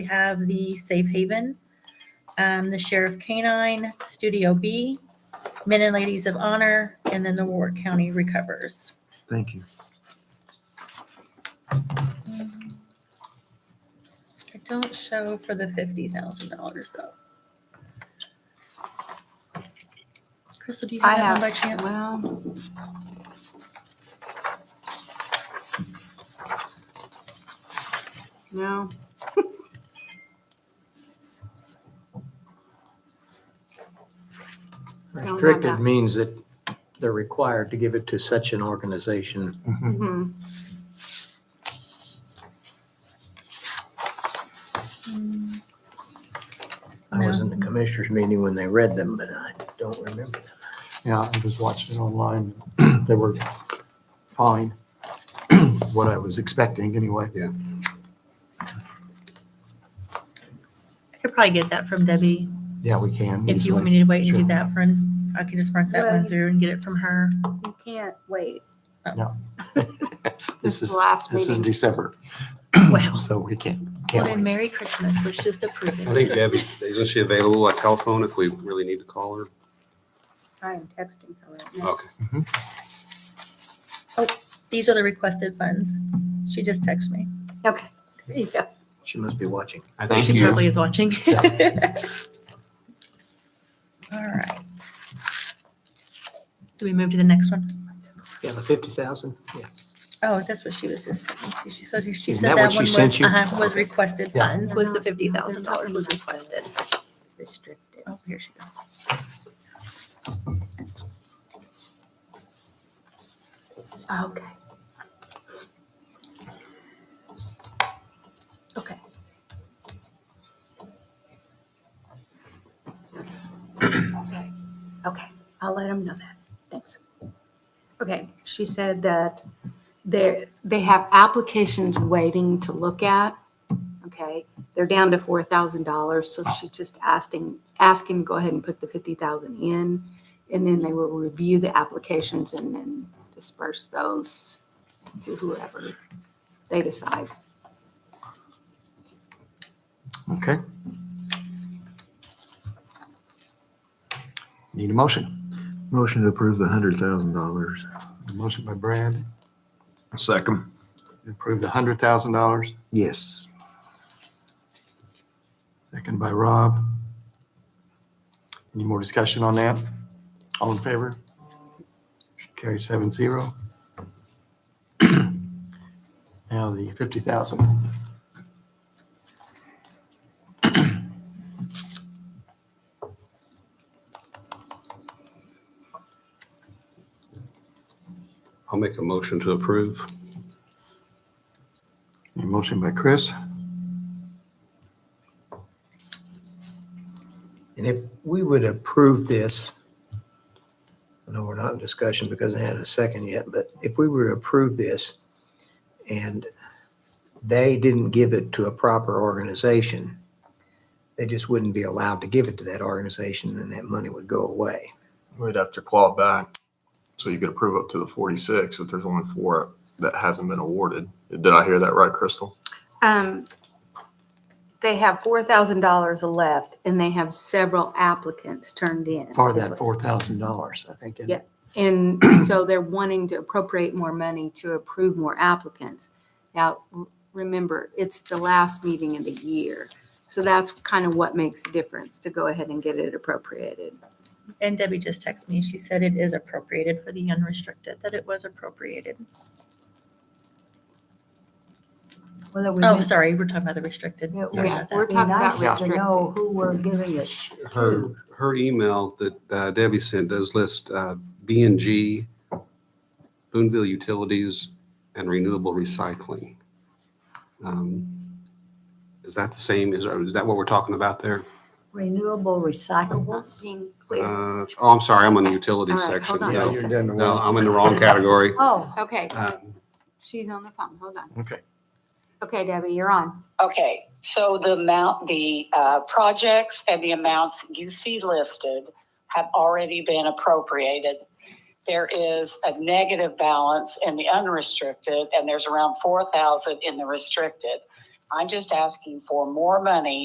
We have the Safe Haven, um, the Sheriff Canine, Studio B, Men and Ladies of Honor, and then the Warwick County Recovers. Thank you. It don't show for the fifty thousand dollars though. Crystal, do you I have that one by have- chance? Well. No. Don't know Restricted that. means that they're required to give it to such an organization. Mhm. Mhm. I was in the commissioners meeting when they read them, but I don't remember them. Yeah, I just watched it online. They were fine. What I was expecting anyway. Yeah. I could probably get that from Debbie. Yeah, we can. If you want me to wait and do that one, I can just mark that one Right. through and get it from her. You can't wait. This This is is, the last this is meeting. December, Well, so we can't, well can't then wait. Merry Christmas. Let's just approve I it. think Debbie, isn't she available by telephone if we really need to call her? I am texting her right now. Okay. These are the requested funds. She just texted me. Okay. There you go. She must be watching. Thank She you. probably is watching. All right. Do we move to the next one? Yeah, the fifty thousand? Yeah. Oh, that's what she was just telling me. She said, she Isn't said that that what she one sent was, you? uh-huh, was requested Yeah. funds, was the fifty thousand dollars was requested. Restricted. Oh, here she goes. Ah, Okay. Okay. Okay. Okay. I'll let them know that. Thanks. Okay. She said that they they have applications waiting to look at. Okay. They're down to four thousand dollars, so she's just asking asking to go ahead and put the fifty thousand in, and then they will review the applications and then disperse those to whoever they decide. Okay. Need a motion. Motion to approve the hundred thousand dollars. A motion by Brad, Second. approve the hundred thousand dollars. Yes. Second by Rob. Any more discussion on that? All in favor? Carry seven zero. Now the fifty thousand. I'll make a motion to approve. A motion by Chris. And if we would approve this, I know we're not in discussion because I had a second yet, but if we were to approve this and they didn't give it to a proper organization, they just wouldn't be allowed to give it to that organization and that money would go away. We'd have to claw it back. So you could approve up to the forty-six, but there's only four that hasn't been awarded. Did I hear that right, Crystal? Um, they have four thousand dollars left and they have several applicants turned in. for that four thousand dollars, I think. isn't it? And so they're wanting to appropriate more money to approve more applicants. Now, r- remember, it's the last meeting of the year. So that's kind of what makes the difference to go ahead and get it appropriated. And Debbie just texted me. She said it is appropriated for the unrestricted, that it was appropriated. Well, that we Oh, meant- sorry, we're talking about the restricted. Yeah, Sorry yeah, about we're that. Be talking about nice to know restricted. who we're giving it Her, to. her email that uh, Debbie sent does list uh, B and G, Boonville Utilities, and Renewable Recycling. Um, Is that the same, is, is that what we're talking about there? Renewable recyclables. Being clear. Uh, Oh, I'm sorry, I'm on the utilities All right, section. hold on. Uh, No, Yeah, you're down to No, I'm in the wrong category. Oh, Okay, Um, she's on the phone. Hold on. Okay. Okay, Debbie, you're on. Okay, so the amount, the uh, projects and the amounts you see listed have already been appropriated. There is a negative balance in the unrestricted, and there's around four thousand in the restricted. I'm just asking for more money